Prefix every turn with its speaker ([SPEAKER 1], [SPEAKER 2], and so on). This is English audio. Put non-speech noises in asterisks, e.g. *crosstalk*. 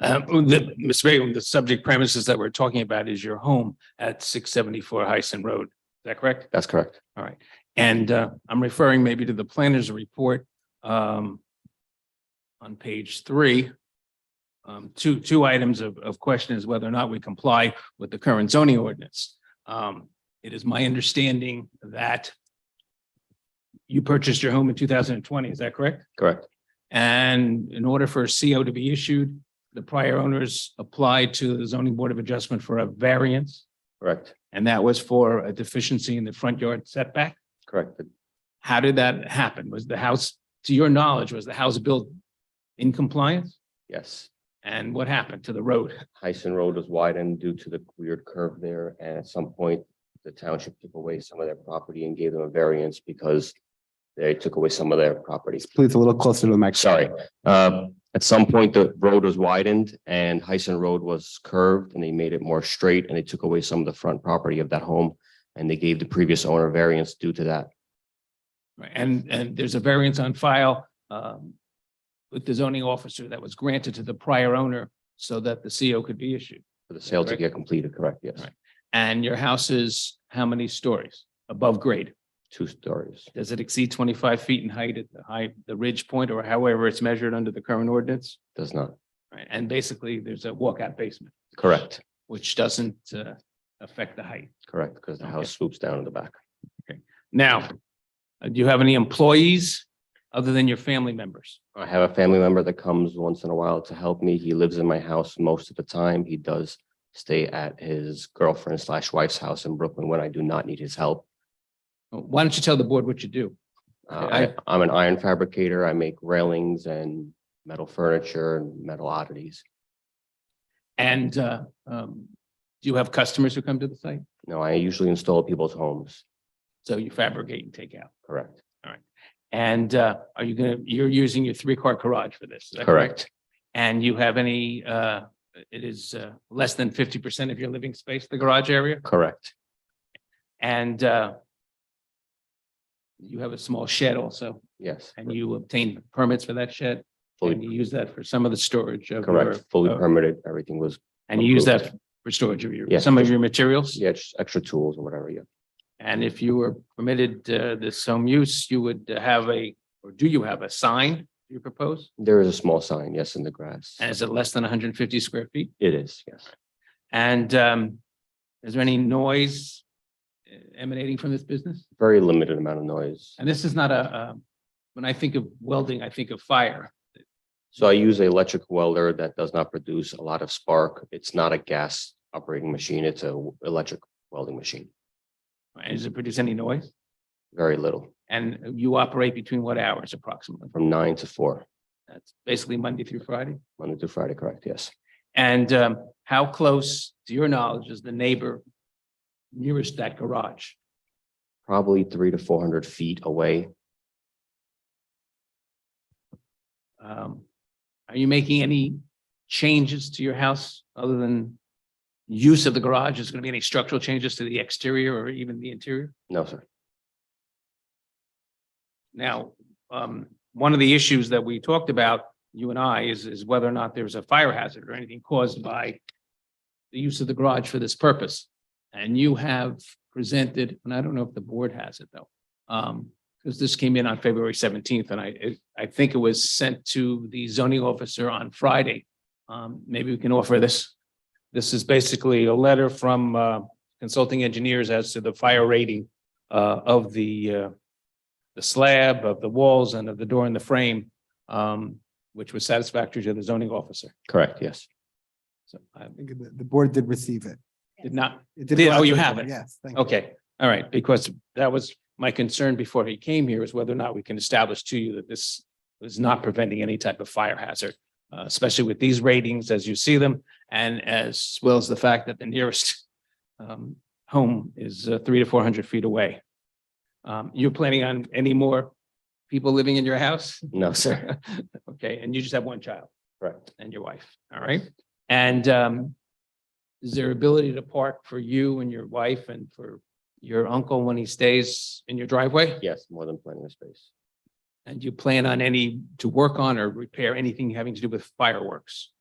[SPEAKER 1] Um, the, Ms. Vega, the subject premises that we're talking about is your home at six seventy-four Heisen Road. Is that correct?
[SPEAKER 2] That's correct.
[SPEAKER 1] And uh, I'm referring maybe to the planner's report um, on page three. Um, Two, two items of, of question is whether or not we comply with the current zoning ordinance. Um, It is my understanding that you purchased your home in 2020, is that correct?
[SPEAKER 2] Correct.
[SPEAKER 1] And in order for a CO to be issued, the prior owners applied to the zoning board of adjustment for a variance,
[SPEAKER 2] Correct.
[SPEAKER 1] and that was for a deficiency in the front yard setback?
[SPEAKER 2] Correct.
[SPEAKER 1] How did that happen? Was the house, to your knowledge, was the house built in compliance?
[SPEAKER 2] Yes.
[SPEAKER 1] And what happened to the road?
[SPEAKER 2] Heisen Road was widened due to the weird curve there, and at some point, the township took away some of their property and gave them a variance because they took away some of their property.
[SPEAKER 3] Please a little closer to the mic.
[SPEAKER 2] Sorry. Uh, At some point, the road was widened and Heisen Road was curved and they made it more straight and they took away some of the front property of that home. And they gave the previous owner variance due to that.
[SPEAKER 1] And, and there's a variance on file um, with the zoning officer that was granted to the prior owner so that the CO could be issued.
[SPEAKER 2] For the sale to
[SPEAKER 1] Correct.
[SPEAKER 2] get completed, correct? Yes,
[SPEAKER 1] Right. And your house is how many stories above grade?
[SPEAKER 2] two stories.
[SPEAKER 1] Does it exceed 25 feet in height at the height, the ridge point, or however it's measured under the current ordinance?
[SPEAKER 2] Does not.
[SPEAKER 1] Right, and basically, there's a walkout basement,
[SPEAKER 2] Correct,
[SPEAKER 1] which doesn't uh, affect the height.
[SPEAKER 2] correct, because the
[SPEAKER 1] Okay.
[SPEAKER 2] house swoops down in the back.
[SPEAKER 1] Now, uh, do you have any employees other than your family members?
[SPEAKER 2] I have a family member that comes once in a while to help me. He lives in my house most of the time. He does stay at his girlfriend slash wife's house in Brooklyn when I do not need his help.
[SPEAKER 1] Uh, Why don't you tell the board what you do?
[SPEAKER 2] Uh,
[SPEAKER 1] Okay,
[SPEAKER 2] I, I'm an iron fabricator. I make railings and metal furniture and metal oddities.
[SPEAKER 1] And uh, um, do you have customers who come to the site?
[SPEAKER 2] No, I usually install people's homes,
[SPEAKER 1] So you fabricate and take out.
[SPEAKER 2] correct?
[SPEAKER 1] And uh, are you gonna, you're using your three-car garage for this? is that
[SPEAKER 2] Correct,
[SPEAKER 1] And you have any, uh, it is uh, less than fifty percent of your living space, the garage area?
[SPEAKER 2] correct,
[SPEAKER 1] And uh, you have a small shed also,
[SPEAKER 2] yes.
[SPEAKER 1] and you obtain permits for that shed? And you
[SPEAKER 2] Fully,
[SPEAKER 1] use that for some of the storage of your
[SPEAKER 2] correct, fully
[SPEAKER 1] uh,
[SPEAKER 2] permitted. Everything was,
[SPEAKER 1] And you use that
[SPEAKER 2] Approved.
[SPEAKER 1] for storage of your,
[SPEAKER 2] Yes.
[SPEAKER 1] some of your materials?
[SPEAKER 2] yeah, just extra tools and whatever, yeah.
[SPEAKER 1] And if you were permitted uh, this home use, you would have a, or do you have a sign you propose?
[SPEAKER 2] There is a small sign, yes, in the grass.
[SPEAKER 1] And is it less than hundred and fifty square feet?
[SPEAKER 2] It is, yes.
[SPEAKER 1] And um, is there any noise emanating from this business?
[SPEAKER 2] Very limited amount of noise.
[SPEAKER 1] And this is not a, um, when I think of welding, I think of fire.
[SPEAKER 2] So I use an electric welder that does not produce a lot of spark. It's not a gas operating machine. It's a w- electric welding machine,
[SPEAKER 1] Does it produce any noise?
[SPEAKER 2] very little,
[SPEAKER 1] And you operate between what hours approximately?
[SPEAKER 2] from nine to four,
[SPEAKER 1] That's basically Monday through Friday?
[SPEAKER 2] Monday through Friday, correct? Yes.
[SPEAKER 1] And um, how close, to your knowledge, is the neighbor nearest that garage?
[SPEAKER 2] Probably three to four hundred feet away.
[SPEAKER 1] Um, Are you making any changes to your house other than use of the garage? Is there going to be any structural changes to the exterior or even the interior?
[SPEAKER 2] No, sir.
[SPEAKER 1] Now, um, one of the issues that we talked about, you and I, is, is whether or not there's a fire hazard or anything caused by the use of the garage for this purpose. And you have presented, and I don't know if the board has it though, um, because this came in on February seventeenth and I, it- I think it was sent to the zoning officer on Friday. Um, maybe we can offer this. This is basically a letter from, uh, consulting engineers as to the fire rating, uh, of the, uh, the slab of the walls and of the door and the frame, um, which was satisfactory to the zoning officer.
[SPEAKER 2] Correct, yes.
[SPEAKER 1] So I
[SPEAKER 3] I think the, the board did receive it.
[SPEAKER 1] did not,
[SPEAKER 3] It
[SPEAKER 1] Did-
[SPEAKER 3] go out
[SPEAKER 1] oh,
[SPEAKER 3] to
[SPEAKER 1] you
[SPEAKER 3] the
[SPEAKER 1] have
[SPEAKER 3] board,
[SPEAKER 1] it.
[SPEAKER 3] Yes. thank you.
[SPEAKER 1] okay, all right, because that was my concern before he came here is whether or not we can establish to you that this was not preventing any type of fire hazard, uh, especially with these ratings as you see them and as well as the fact that the nearest um, home is uh, three to four hundred feet away. Um, you're planning on any more people living in your house?
[SPEAKER 2] No, *laughs* sir.
[SPEAKER 1] *laughs* Okay, and you just have one child?
[SPEAKER 2] Correct.
[SPEAKER 1] and your wife, all right? And um, is there ability to park for you and your wife and for your uncle when he stays in your driveway?
[SPEAKER 2] Yes, more than plenty of space.
[SPEAKER 1] And do you plan on any to work on or repair anything having to do with fireworks?